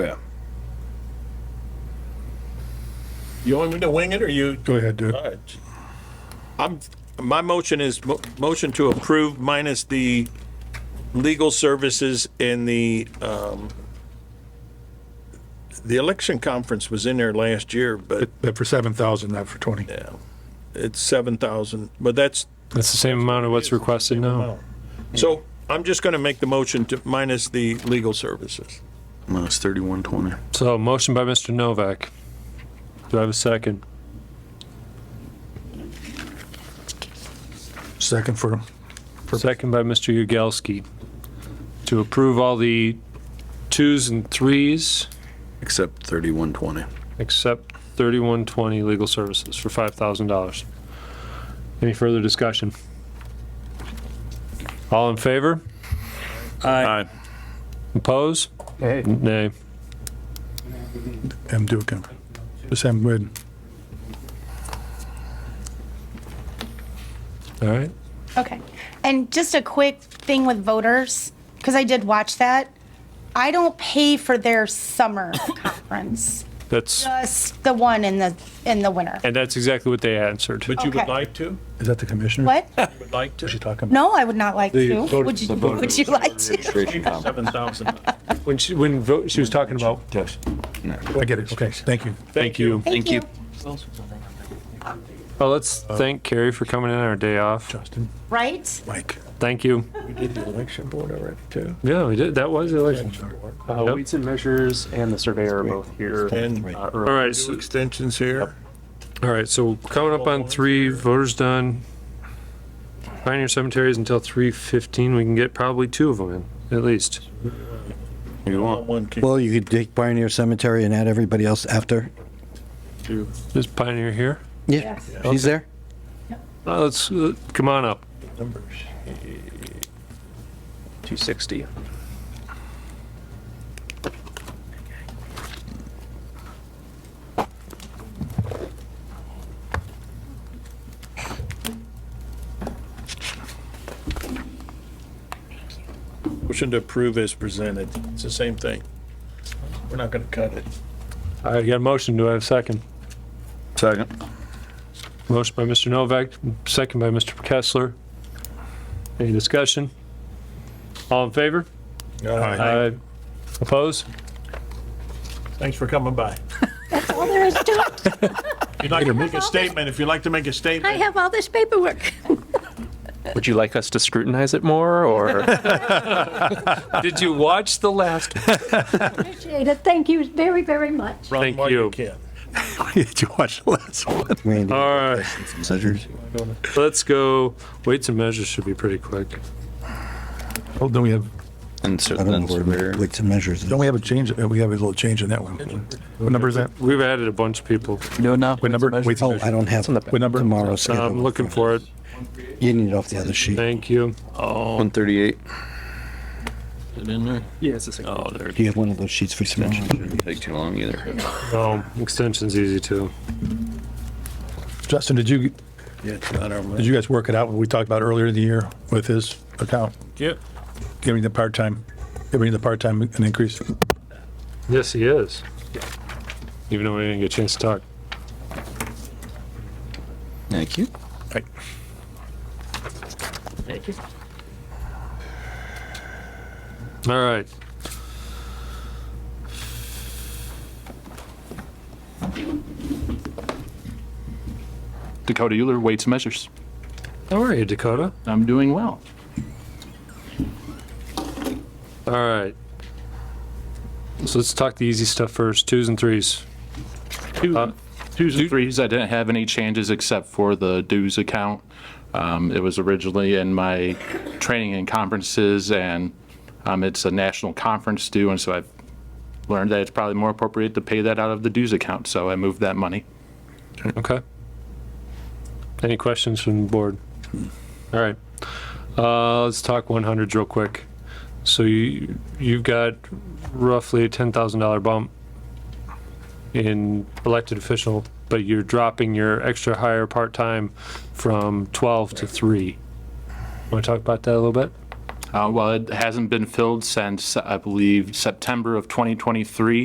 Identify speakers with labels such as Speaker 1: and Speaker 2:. Speaker 1: Yeah.
Speaker 2: You want me to wing it or you?
Speaker 3: Go ahead, dude.
Speaker 2: All right. I'm, my motion is mo- motion to approve minus the legal services and the, um, the election conference was in there last year, but
Speaker 3: But for seven thousand, not for twenty.
Speaker 2: it's 7,000, but that's,
Speaker 4: That's the same amount of what's requested now.
Speaker 2: so I'm just going to make the motion to minus the legal services.
Speaker 1: Minus thirty-one twenty.
Speaker 4: So motion by Mr. Novak. Do I have a second?
Speaker 3: Second for,
Speaker 4: Second by Mr. Yagowski. To approve all the twos and threes
Speaker 1: Except thirty-one twenty.
Speaker 4: except 3120 legal services for $5,000. Any further discussion? All in favor?
Speaker 1: Aye.
Speaker 4: Oppose? Nay.
Speaker 3: M. Dukin. Just M. Witten.
Speaker 4: All right.
Speaker 5: Okay. And just a quick thing with voters, because I did watch that. I don't pay for their summer conference,
Speaker 4: That's,
Speaker 5: just the one in the, in the winter.
Speaker 4: and that's exactly what they answered.
Speaker 2: But you would
Speaker 5: Okay.
Speaker 2: like to?
Speaker 3: Is that the commissioner?
Speaker 5: What?
Speaker 2: Would like to?
Speaker 3: She's talking about?
Speaker 5: No, I would not like to.
Speaker 3: voter-
Speaker 5: Would you, would you like to?
Speaker 2: 7,000.
Speaker 4: When she, when vote, she was talking about,
Speaker 3: I get it. Okay, thank you.
Speaker 4: thank you.
Speaker 5: Thank you.
Speaker 4: Well, let's thank Carrie for coming in on our day off.
Speaker 3: Justin,
Speaker 5: Right?
Speaker 3: Mike.
Speaker 4: Thank you. Yeah, we did. That was the election.
Speaker 6: Uh,
Speaker 4: Yep.
Speaker 6: Weights and measures and the surveyor are both here.
Speaker 2: And
Speaker 6: uh, early.
Speaker 4: All right, so,
Speaker 2: extensions here.
Speaker 4: all right, so coming up on three, voters done. Pioneer cemeteries until three fifteen. We can get probably two of them in, at least.
Speaker 1: You want?
Speaker 2: One, two,
Speaker 7: Well, you could take Pioneer Cemetery and add everybody else after.
Speaker 2: two.
Speaker 4: Is Pioneer here?
Speaker 7: Yeah, she's there.
Speaker 4: Uh, let's, uh, come on up.
Speaker 6: 260.
Speaker 2: Motion to approve as presented. It's the same thing. We're not gonna cut it.
Speaker 4: All right, got a motion. Do I have a second?
Speaker 1: Second.
Speaker 4: Motion by Mr. Novak, second by Mr. Kessler. Any discussion? All in favor? Aye. Oppose?
Speaker 2: Thanks for coming by.
Speaker 8: All there is to it.
Speaker 2: If you'd like to make a statement, if you'd like to make a
Speaker 8: I
Speaker 2: statement,
Speaker 8: have all this paperwork.
Speaker 6: Would you like us to scrutinize it more or?
Speaker 4: Did you watch the last?
Speaker 8: Appreciate it. Thank you very, very much.
Speaker 2: run
Speaker 4: Thank
Speaker 2: while you
Speaker 4: you.
Speaker 2: can.
Speaker 3: Did you watch the last one?
Speaker 7: Randy,
Speaker 4: All right.
Speaker 7: Sedgers.
Speaker 4: Let's go. Weights and measures should be pretty quick.
Speaker 3: Oh, don't we have,
Speaker 1: And so
Speaker 7: I don't
Speaker 1: then
Speaker 7: know where,
Speaker 1: surveyor.
Speaker 7: like to measures.
Speaker 3: don't we have a change? uh, We have a little change in that one. What number is that?
Speaker 4: We've added a bunch of people.
Speaker 6: No, no.
Speaker 3: What number? Wait,
Speaker 7: Oh, I don't have
Speaker 6: the back.
Speaker 3: What number?
Speaker 7: tomorrow's schedule.
Speaker 4: I'm looking for it.
Speaker 7: You need it off the other sheet.
Speaker 4: Thank you.
Speaker 1: One thirty-eight. Is it in there?
Speaker 6: Yeah, it's the same.
Speaker 1: Oh, there.
Speaker 7: Do you have one of those sheets for tomorrow?
Speaker 1: Didn't take too long either.
Speaker 4: Oh, extension's easy too.
Speaker 3: Justin, did you,
Speaker 1: Yeah, it's not our.
Speaker 3: did you guys work it out, what we talked about earlier in the year with his account?
Speaker 2: Yeah.
Speaker 3: Giving the part-time, giving the part-time an increase?
Speaker 4: Yes, he is. Even though we didn't get a chance to talk.
Speaker 1: Thank you.
Speaker 3: Right.
Speaker 4: All right.
Speaker 6: Dakota Euler, weights and measures.
Speaker 4: How are you, Dakota?
Speaker 6: I'm doing well.
Speaker 4: All right. So let's talk the easy stuff first. Twos and threes. Uh,
Speaker 9: Twos and threes, I didn't have any changes except for the dues account. Um, It was originally in my training and conferences, and um, it's a national conference due, and so I've learned that it's probably more appropriate to pay that out of the dues account, so I moved that money.
Speaker 4: Okay. Any questions from the board? All right. Uh, let's talk 100s real quick. So you you've got roughly a ten thousand dollar bump in elected official, but you're dropping your extra hire part time from twelve to three. Want to talk about that a little bit?
Speaker 9: Uh, Well, it hasn't been filled since, I believe, September of 2023,